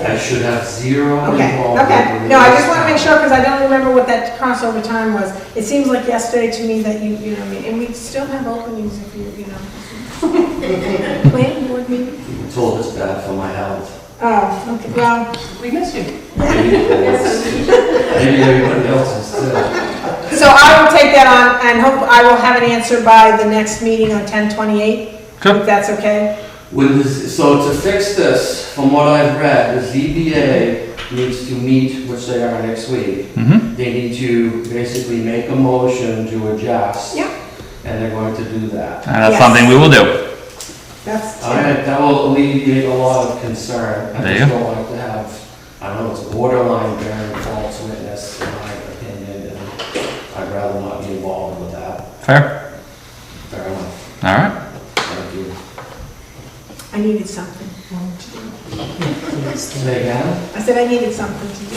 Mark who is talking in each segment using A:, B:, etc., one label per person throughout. A: I should have zero
B: Okay,
A: involvement.
B: okay.
A: with
B: No, I
A: this
B: just want to make
A: town.
B: sure, because I don't remember what that crossover time was. It seems like yesterday to me that you, you know, what I mean, and we still have openings if you, you know. Plan board meeting?
A: I'm told it's bad for my health.
B: Oh, okay, well,
C: We miss you.
A: Maybe everybody else is too.
B: so I will take that on, and hope, I will have an answer by the next meeting on ten twenty-eight, if that's okay.
A: With this, so to fix this, from what I've read, the ZBA needs to meet, which they are next week.
D: Mm-hmm.
A: They need to basically make a motion to adjust.
B: Yeah.
A: And they're going to do that.
D: And that's
B: Yes.
D: something we will do.
B: That's,
A: All right, that will alleviate a lot of concern. I
D: There
A: just
D: you
A: don't like to have, I know it's borderline bearing false witness in my opinion, and I'd rather not be involved with that.
D: Fair.
A: Fair enough,
D: All right.
A: thank you.
B: I needed something more to do.
A: Say again?
B: I said I needed something to do.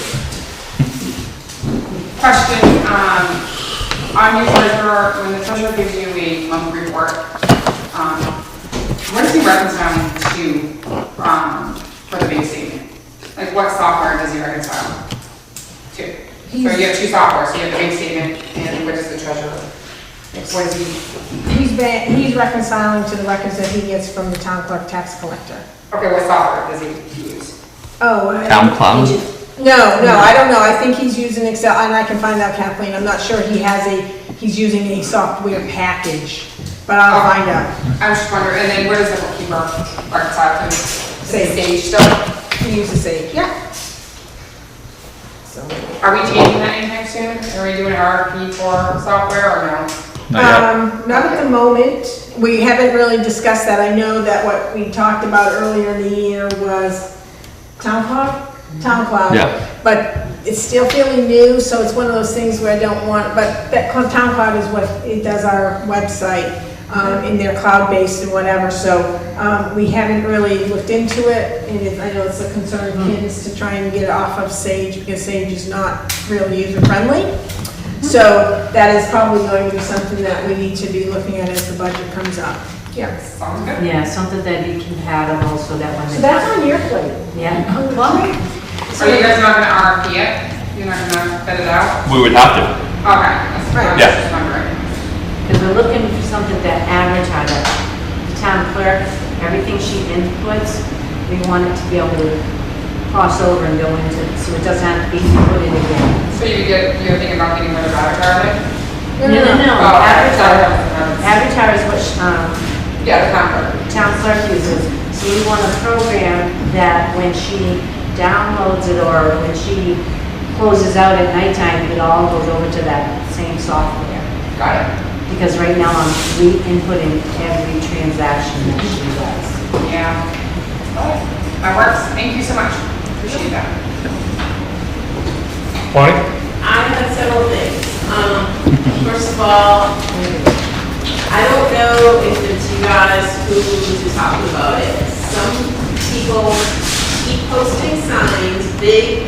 C: Question, um, on your treasurer, when the treasurer gives you a monthly report, um, what is he reconciling to, um, for the bank statement? Like what software does he reconcile to? So you have two softwares, you have the bank statement and what is the treasurer? Like what is he,
B: He's been, he's reconciling to the records that he gets from the town clerk tax collector.
C: okay, what software does he use?
B: Oh. I-
D: Town clown.
B: No, no, I don't know, I think he's using Excel, and I can find out Kathleen, I'm not sure he has a, he's using a software package, but I'll find out.
C: I'm just wondering, and then what does the bookkeeper reconcile to?
B: Sage.
C: Sage stuff?
B: He uses Sage, yeah. So,
C: Are we changing that anytime soon? Are we doing an RFP for software or no?
D: Not yet.
B: Um, not at the moment, we haven't really discussed that, I know that what we talked about earlier in the year was town clock, town cloud.
D: Yeah.
B: But it's still fairly new, so it's one of those things where I don't want, but that Cl- Town Cloud is what, it does our website, um, and they're cloud-based and whatever, so, um, we haven't really looked into it, and it- I know it's a concern of kids to try and get it off of Sage, because Sage is not really user-friendly. So that is probably going to be something that we need to be looking at as the budget comes up. Yeah.
C: Sounds good.
E: Yeah, something that be compatible so that when.
B: So that's on your plate.
E: Yeah. Well,
C: So you guys are not gonna RFP it? You're not gonna bid it out?
D: We would have to.
C: Okay. that's what I was
D: Yeah.
C: just wondering.
E: Because we're looking for something that advertises, the town clerk, everything she inputs, we want it to be able to cross over and go into, so it doesn't have to be put in again.
C: So you get, you're thinking about getting rid of that garlic?
E: No, no, no,
C: Oh,
E: advertise,
C: sorry.
E: advertise what, she- um,
C: Yeah, the convert.
E: town clerk uses. So we want a program that when she downloads it or when she closes out at nighttime, it all goes over to that same software.
C: Got it.
E: Because right now I'm re-inputting every transaction that she does.
C: Yeah. Alright, That works. Thank you so much. Appreciate that.
F: I have several things. Um, First of all, I don't know if it's you guys who to talk about it. Some people keep posting signs, big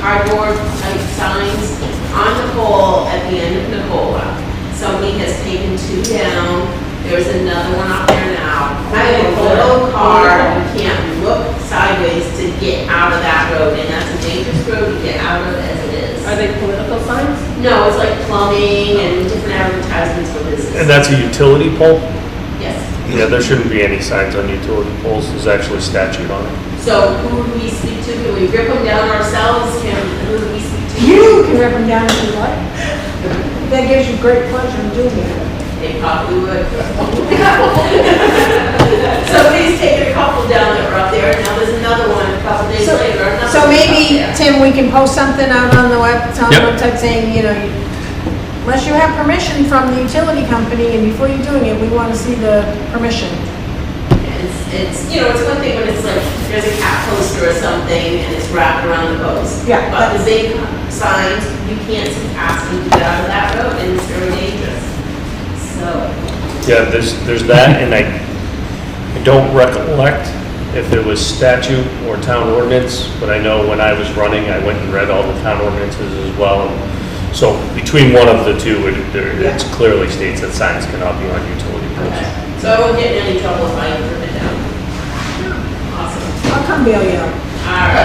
F: cardboard type signs on Nicole at the end of Nicola. Somebody has taken two down. There's another one out there now. I have a little car, you can't look sideways to get out of that road, and that's a dangerous road to get out of as it is.
G: Are they political signs?
F: No, it's like plumbing and different advertisements for business.
H: And that's a utility pole?
F: Yes.
H: Yeah, there shouldn't be any signs on utility poles, there's actually statute on it.
F: So who do we speak to? Can we rip them down ourselves? Can, who do we speak to?
B: You can rip them down if you like. That gives you great pleasure in doing it.
F: They probably would. Somebody's taken a couple down that were up there, and now there's another one a couple days
B: So-
F: later, another
B: So
F: one's up
B: maybe,
F: there.
B: Tim, we can post something out on the web, on the
D: Yep.
B: website saying, you know, you- unless you have permission from the utility company, and before you're doing it, we want to see the permission.
F: It's, it's, you know, it's one thing when it's like, there's a cat poster or something and it's wrapped around the post.
B: Yeah,
F: But the big signs, you can't ask them to get out of that road and it's very dangerous. So,
H: Yeah, there's, there's that, and I, I don't recollect if there was statute or town ordinance, but I know when I was running, I went and read all the town ordinances as well. So between one of the two, it, there- it clearly states that signs cannot be on utility poles.
F: okay. So I won't get in any trouble if I rip it down. Awesome.
B: I'll come bail you out.
F: All right.